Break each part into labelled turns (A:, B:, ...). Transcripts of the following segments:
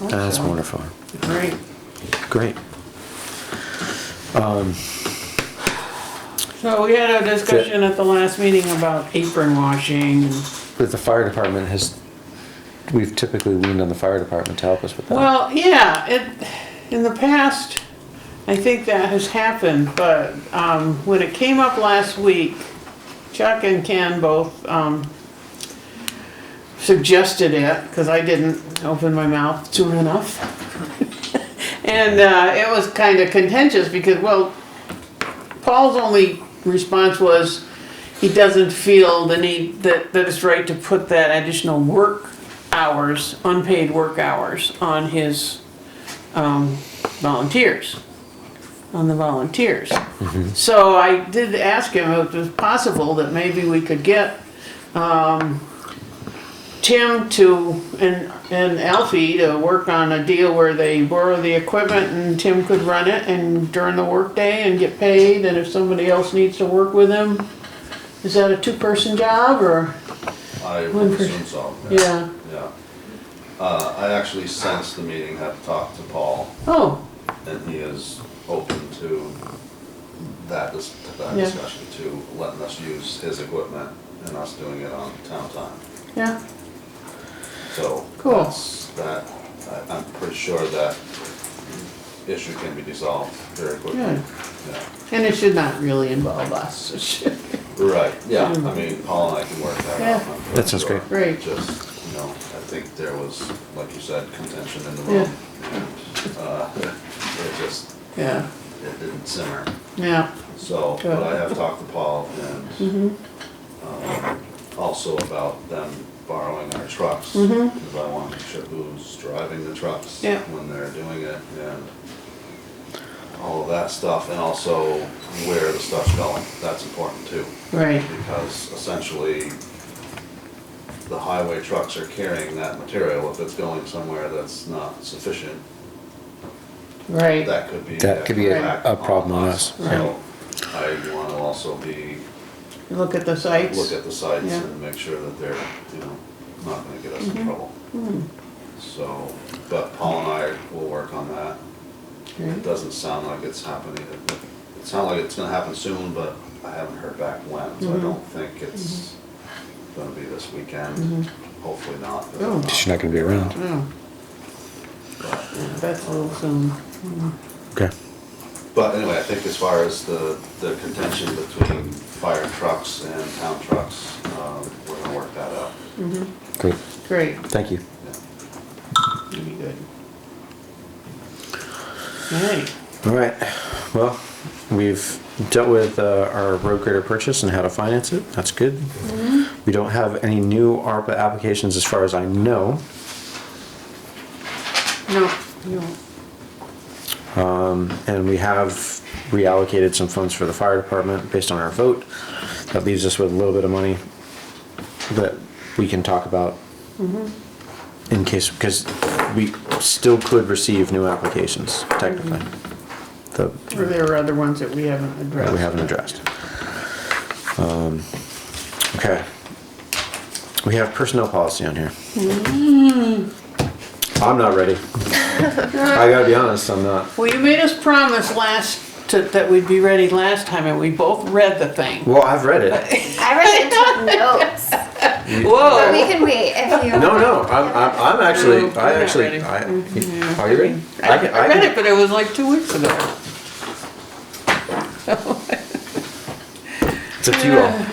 A: That's wonderful.
B: Great.
A: Great.
B: So we had a discussion at the last meeting about apron washing. and-
A: But the fire department has, we've typically leaned on the fire department to help us with that.
B: Well, yeah, it, in the past, I think that has happened, but, um, when it came up last week, Chuck and Ken both, um, suggested it, cause I didn't open my mouth soon enough. And, uh, it was kinda contentious because, well, Paul's only response was he doesn't feel the need that, that it's right to put that additional work hours, unpaid work hours, on his um, volunteers, on the volunteers. So I did ask him if it was possible that maybe we could get um, Tim to, and, and Alfie to work on a deal where they borrow the equipment and Tim could run it and during the workday and get paid, and if somebody else needs to work with him. Is that a two-person job or,
C: I
B: One
C: would
B: per-
C: assume so.
B: yeah,
C: Yeah. Uh, I actually sensed the meeting, had talked to Paul,
B: oh,
C: and he is open to that, dis- to that
B: Yeah.
C: discussion, to letting us use his equipment and us doing it on town time.
B: yeah,
C: So.
B: Cool.
C: that's- That, I- I'm pretty sure that issue can be dissolved very quickly.
B: Good.
C: Yeah.
B: and it should not really involve us, it should,
C: Right, yeah, I mean, Paul and I can work that out.
B: Mm-hmm. Yeah.
C: I'm pretty
A: That sounds
C: sure.
A: great.
B: Great.
C: Just, you know, I think there was, like you said, contention in the
B: Yeah.
C: room. and, uh, It just,
B: yeah,
C: it didn't simmer.
B: yeah,
C: So,
B: Good.
C: but I have talked to Paul
B: Mm-hmm.
C: and um, also about them borrowing our trucks. Because I want to make sure who's driving the trucks
B: Mm-hmm. Yeah.
C: when they're doing it and all of that stuff. And also where the stuff's going, that's important too
B: right,
C: because essentially the highway trucks are carrying that material. If it's going somewhere that's not sufficient,
B: right,
C: that could be.
A: That could be
B: a-
C: back
A: a problem on us, yeah.
C: So I want to also be,
B: look at the sites.
C: look at the sites
B: Yeah.
C: and make sure that they're, you know, not gonna get us in trouble. So, but Paul and I will work on that. It
B: Right.
C: doesn't sound like it's happening. It- It sounds like it's gonna happen soon, but I haven't heard back when, so I don't think it's gonna be this weekend. Hopefully not. but if
B: Oh.
C: not-
A: She's not gonna be around.
B: Oh,
C: But-
B: that's a little soon,
A: Okay.
C: But anyway, I think as far as the, the contention between fire trucks and town trucks, um, we're gonna work that out.
A: Great.
B: great.
A: Thank you.
C: Yeah.
B: That'd be good. Alright,
A: All right. Well, we've dealt with uh, our road grader purchase and how to finance it. That's good. We don't have any new ARPA applications as far as I know.
B: no, no,
A: And we have reallocated some funds for the fire department based on our vote. That leaves us with a little bit of money that we can talk about in case, because we still could receive new applications technically. The,
B: or there are other ones that we haven't
A: that
B: addressed.
A: we haven't addressed. Um, Okay. We have personnel policy on here. I'm not ready. I gotta be honest, I'm not.
B: Well, you made us promise last, to- that we'd be ready last time, and we both read the thing.
A: Well, I've read it.
D: I read into notes, but we
B: Whoa!
D: can wait if you.
A: No, no, I'm, I'm, I'm actually,
B: No,
A: I
B: I'm not
A: actually,
B: ready.
A: I, are you ready?
B: Mm-hmm. I
A: can- can-
B: I read it, but it was like two weeks ago.
A: It's up to you all.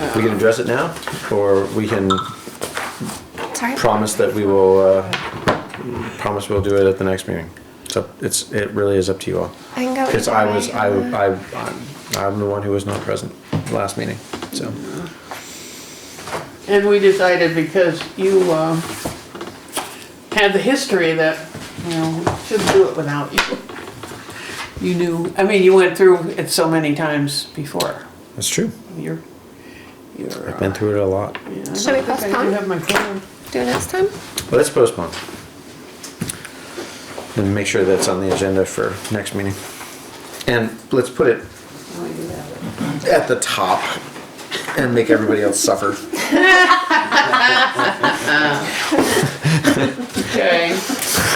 B: Uh,
A: We can address it now, or we can
D: Sorry.
A: promise that we will, uh, promise we'll do it at the next meeting. It's up, it's, it really is up to you all.
D: I can go. um,
A: Because
D: either
A: I
D: way
A: was, I,
D: on that.
A: I, I'm- I'm the one who was not present last meeting, so.
B: And we decided because you, um, had the history that, you know, we shouldn't do it without you. You knew, I mean, you went through it so many times before.
A: That's true.
B: You're, you're. uh,
A: Been through it a lot.
D: Shall we postpone?
B: have my phone.
D: Do next time?
A: Let's postpone. And make sure that's on the agenda for next meeting. And let's put it at the top and make everybody else suffer.
B: Okay.